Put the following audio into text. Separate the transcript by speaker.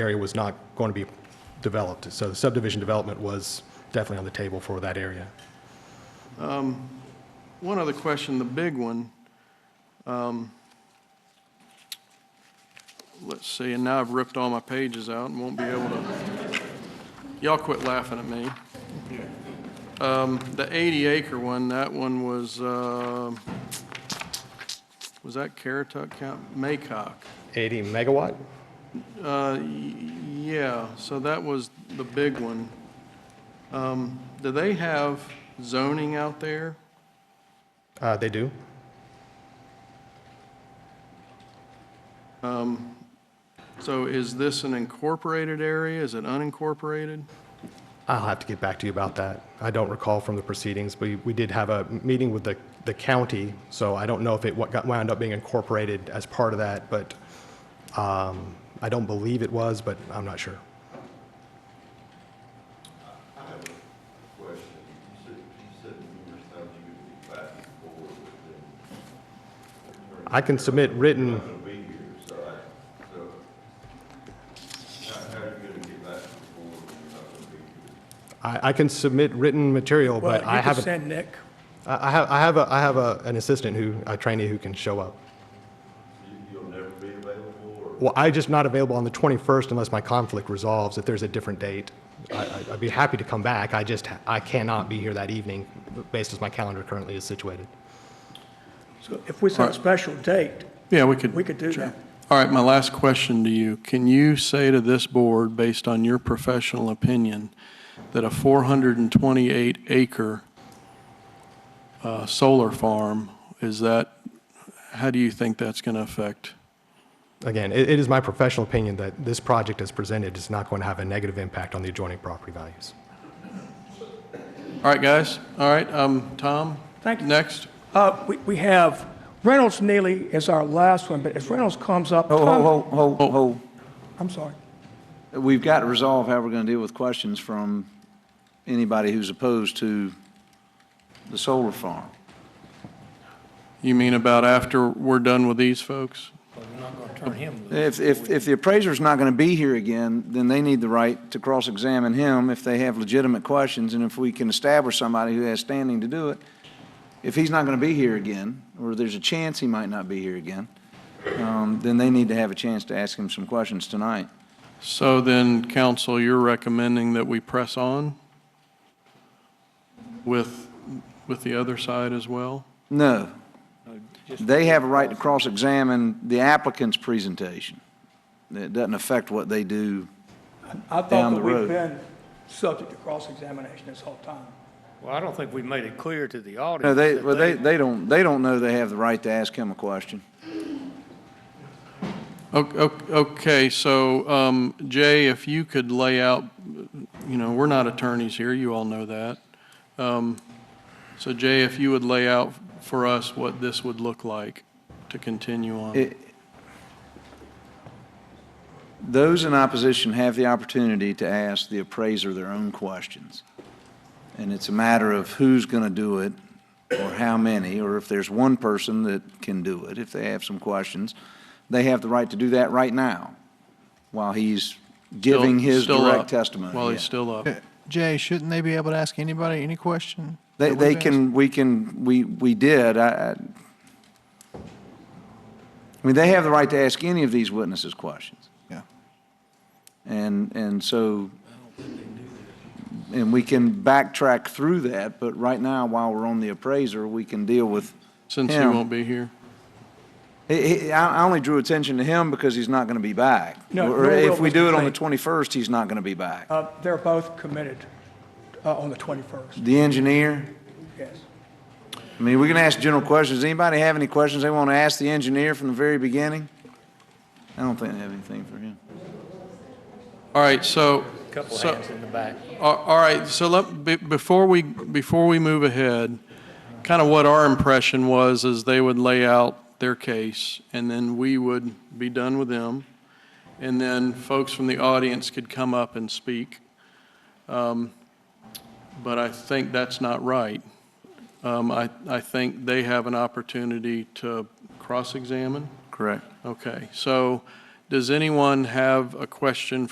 Speaker 1: area was not going to be developed. So the subdivision development was definitely on the table for that area.
Speaker 2: One other question, the big one. Um, Let's see, and now I've ripped all my pages out and won't be able to, y'all quit laughing at me. Um, The 80-acre one, that one was, uh, was that Carrituck County? Maycock.
Speaker 1: 80 megawatt?
Speaker 2: Uh, y- Yeah, so that was the big one. Um, Do they have zoning out there?
Speaker 1: Uh, They do.
Speaker 2: So is this an incorporated area? Is it unincorporated?
Speaker 1: I'll have to get back to you about that. I don't recall from the proceedings, but we did have a meeting with the, the county, so I don't know if it what got wound up being incorporated as part of that, but um, I don't believe it was, but I'm not sure.
Speaker 3: question, you said, you said numerous times you could be back and forth, but then
Speaker 1: I can submit written,
Speaker 3: you'll be here, so I, so. How, how are you gonna get back and forth when you're not gonna be here?
Speaker 1: I, I can submit written material,
Speaker 4: Well,
Speaker 1: but I
Speaker 4: you could
Speaker 1: haven't, I
Speaker 4: send Nick.
Speaker 1: I have, I have, a- I have a- an assistant who, a trainee who can show up.
Speaker 3: You, you'll never be available, or
Speaker 1: Well, I just not available on the 21st unless my conflict resolves, if there's a different date. I- I- I'd be happy to come back, I just, I cannot be here that evening, based as my calendar currently is situated.
Speaker 4: So if we set a special date,
Speaker 2: Yeah, we could.
Speaker 4: we could do that.
Speaker 2: All right, my last question to you. Can you say to this board, based on your professional opinion, that a 428 acre uh, solar farm, is that, how do you think that's going to affect?
Speaker 1: Again, it it is my professional opinion that this project as presented is not going to have a negative impact on the adjoining property values.
Speaker 2: All right, guys, all right, um, Tom?
Speaker 4: Thank you.
Speaker 2: Next.
Speaker 4: Uh, we, we have Reynolds Neely is our last one, but if Reynolds comes up,
Speaker 5: Ho, ho,
Speaker 4: Tom,
Speaker 5: ho, ho, ho.
Speaker 4: I'm sorry.
Speaker 5: We've got to resolve how we're going to deal with questions from anybody who's opposed to the solar farm.
Speaker 2: You mean about after we're done with these folks?
Speaker 5: If, if, if the appraiser's not going to be here again, then they need the right to cross-examine him if they have legitimate questions, and if we can establish somebody who has standing to do it. If he's not going to be here again, or there's a chance he might not be here again, um, then they need to have a chance to ask him some questions tonight.
Speaker 2: So then, council, you're recommending that we press on with, with the other side as well?
Speaker 5: No. They have a right to cross-examine the applicant's presentation. It doesn't affect what they do.
Speaker 4: I thought
Speaker 5: Down
Speaker 4: that
Speaker 5: the
Speaker 4: we've
Speaker 5: road.
Speaker 4: been subject to cross-examination this whole time.
Speaker 6: Well, I don't think we made it clear to the audience.
Speaker 5: No, they,
Speaker 6: that
Speaker 5: well, they, they don't, they don't know they have the right to ask him a question.
Speaker 2: O- o- Okay, so, um, Jay, if you could lay out, you know, we're not attorneys here, you all know that. Um, So Jay, if you would lay out for us what this would look like to continue on.
Speaker 5: It- Those in opposition have the opportunity to ask the appraiser their own questions. And it's a matter of who's going to do it, or how many, or if there's one person that can do it, if they have some questions, they have the right to do that right now, while he's giving his
Speaker 2: Still- still up,
Speaker 5: direct testimony.
Speaker 2: While he's
Speaker 5: Yeah.
Speaker 2: still up.
Speaker 7: Jay, shouldn't they be able to ask anybody any question?
Speaker 5: They,
Speaker 7: that
Speaker 5: they
Speaker 7: we've asked?
Speaker 5: can, we can, we, we did, I, I- I mean, they have the right to ask any of these witnesses questions.
Speaker 7: Yeah.
Speaker 5: And, and so, and we can backtrack through that, but right now, while we're on the appraiser, we can deal with,
Speaker 2: Since he
Speaker 5: Yeah.
Speaker 2: won't be here.
Speaker 5: he, he, I, I only drew attention to him because he's not gonna be back.
Speaker 4: No,
Speaker 5: Or
Speaker 4: nor will
Speaker 5: if we do it on the
Speaker 4: Mr. Payne.
Speaker 5: twenty-first, he's not gonna be back.
Speaker 4: Uh, they're both committed, uh, on the 21st,
Speaker 5: The engineer,
Speaker 4: yes.
Speaker 5: I mean, we can ask general questions. Anybody have any questions they want to ask the engineer from the very beginning? I don't think they have anything for him.
Speaker 2: All right, so.
Speaker 6: Couple
Speaker 2: so-
Speaker 6: hands in the back.
Speaker 2: All all right, so let, be- before we, before we move ahead, kind of what our impression was is they would lay out their case, and then we would be done with them, and then folks from the audience could come up and speak. Um, But I think that's not right. Um, I, I think they have an opportunity to cross-examine.
Speaker 5: Correct.
Speaker 2: Okay, so does anyone have a question